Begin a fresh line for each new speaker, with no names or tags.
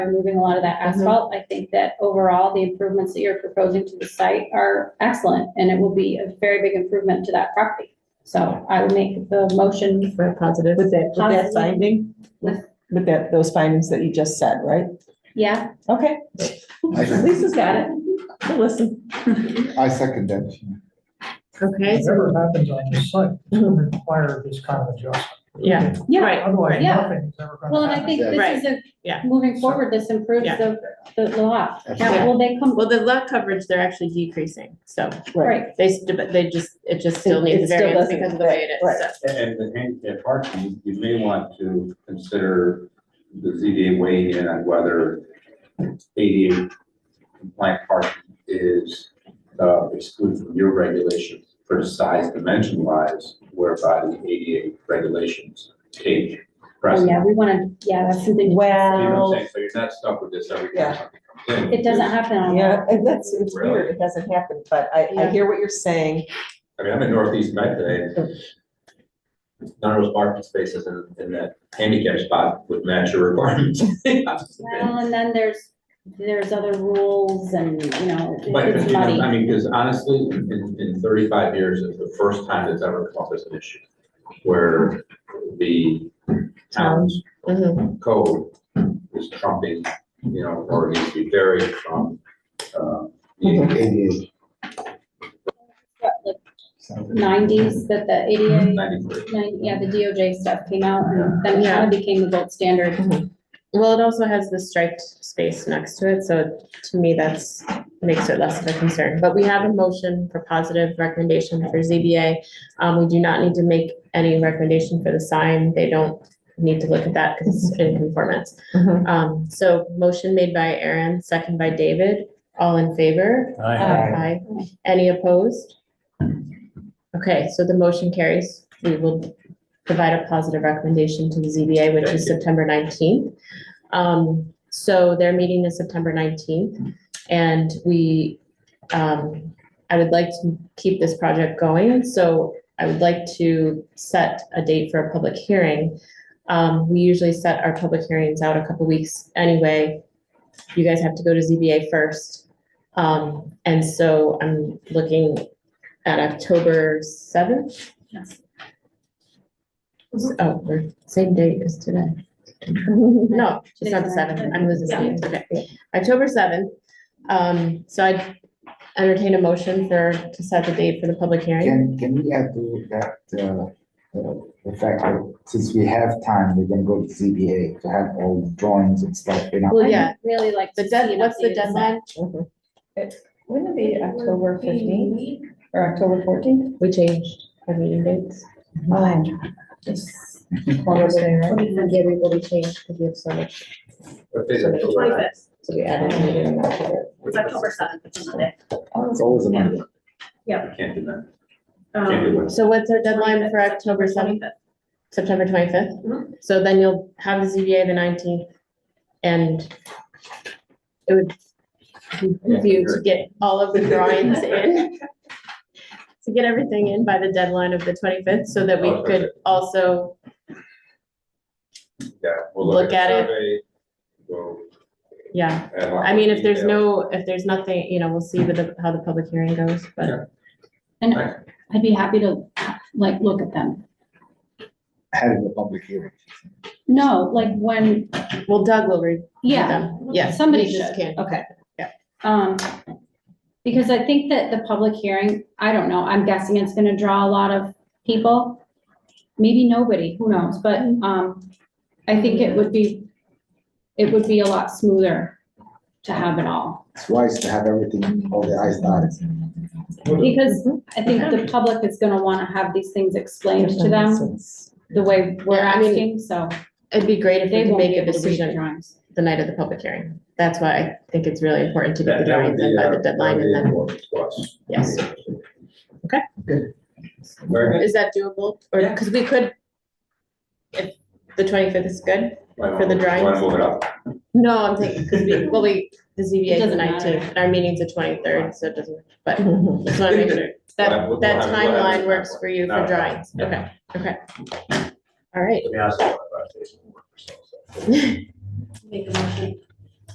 removing a lot of that asphalt. I think that overall, the improvements that you're proposing to the site are excellent, and it will be a very big improvement to that property. So I would make the motion,
Very positive.
With that, with that
Positive.
finding,
With-
with that, those findings that you just said, right?
yeah,
Okay,
I sec-
Lisa's got it. We'll Listen.
I second that.
Okay, so,
Whatever happens on this site will require this kind of adjustment.
yeah,
yeah.
right,
Otherwise,
Yeah.
nothing is ever
Well,
going
and
to
I
happen.
think this is
Yeah.
a, moving forward, this improves
Yeah.
the, the the lot.
Absolutely.
Now, will they come,
well, the lot coverage, they're actually decreasing, so
right,
they, s- but they just, it just still
It-
needs
it still
a variance
doesn't
because of the way it is.
fit,
so.
And the handicap parking, you may want to consider the ZDA weighing in on whether ADA compliant parking is uh, excluded from your regulations for the size dimension wise, whereby the ADA regulations take
Oh,
precedent.
yeah, we wanna, yeah, that's something,
You know what I'm
Well,
saying? So you're not stuck with this every
Yeah.
time something comes in.
it doesn't happen on.
yeah, and that's, it's weird. It hasn't happened, but I, I hear what you're saying.
I mean, I'm in Northeast Met today. None of those parking spaces in, in that handicap spot would match your requirements.
Well, and then there's, there's other rules and, you know,
But, but
it's
you know,
muddy.
I mean, because honestly, in, in thirty-five years, it's the first time that's ever come up as an issue where the town's
Mm-hmm.
Mhm.
code is trumping, you know, or needs to be varied from, uh, the
ADA.
What, like Nineties that the
Mm-hmm.
ADA,
ninety-three.
nine- yeah, the DOJ stuff came out and then it kind of became the gold standard.
Well, it also has the striped space next to it, so to me, that's, makes it less of a concern. But we have a motion for positive recommendation for ZBA. Um, we do not need to make any recommendation for the sign. They don't need to look at that because it's in conformance.
Mhm.
Um, so motion made by Aaron, second by David, all in favor?
uh,
Aye. Any opposed? Okay, so the motion carries. We will provide a positive recommendation to the ZBA, which is
Thank you.
September nineteenth. Um, so their meeting is September nineteenth, and we, um, I would like to keep this project going, so I would like to set a date for a public hearing. Um, we usually set our public hearings out a couple weeks anyway. You guys have to go to ZBA first. Um, and so I'm looking at October seventh. Oh, we're same date as today. No, it's not the seventh. I'm losing dates. Okay, October seventh. Um, so I entertain a motion for, to set the date for the public
Can,
hearing.
can we add to that, uh, uh, the fact that since we have time, we're gonna go to ZBA to have all the drawings and stuff, you know?
Well, yeah,
I'd Really like.
the
to see
dead,
an
what's
updated
the
design.
deadline?
Mm-hmm. Wouldn't it be October fifteenth or October fourteenth?
We changed our meeting dates.
Thursday, right?
Yeah, we will be changed because we have so much,
Okay, that's all right.
so we added a meeting in October.
It's October seventh, which is Monday.
It's always a matter.
You Can't do that.
Um,
Can't do it.
So what's our deadline for October seventh, Mm-hmm. September twenty-fifth? So then you'll have the ZBA the nineteenth, and it would behoove you to get all of the drawings in. To get everything in by the deadline of the twenty-fifth, so that we could also,
Yeah, we'll
Look
look
at it.
at it. survey, we'll
yeah.
add on
I mean, if there's no,
detail.
if there's nothing, you know, we'll see with the, how the public hearing goes, but.
And
Right.
I'd be happy to like look at them.
Having a public hearing.
No, like when,
Well, Doug will read
yeah,
them. Yeah.
Somebody
you just
should.
can't-
okay.
Yeah.
Um, because I think that the public hearing, I don't know, I'm guessing it's gonna draw a lot of people. Maybe nobody, who knows, but,
Mm-hmm.
um, I think it would be, it would be a lot smoother to have it all.
It's wise to have everything, all the eyes dotted.
Because
Mm-hmm.
I think the public is gonna wanna have these things explained to them the way we're
Yeah, I mean,
asking, so
It'd be great if we
they
could
won't
make
be
a
able to read the
decision
drawings.
the night of the public hearing. That's why I think it's really important to get the
That- that would
drawings in
be,
by
uh,
the deadline
that'd
and then,
be important to us.
yes. Okay.
Good. Very good.
Is that doable? Or, because we could, if the twenty-fifth is good? For the drawings?
Want to move it up?
No, I'm thinking, because we, well, we, the ZBA is the
doesn't matter.
nineteenth, and our meeting's the twenty-third, so it doesn't, but just want to make sure.
We'll have-
That,
we'll
that
have- we'll have-
timeline works for you for
No.
drawings. Okay, okay. All right.
To be honest, I don't know if I have to work for myself, so.
Make a motion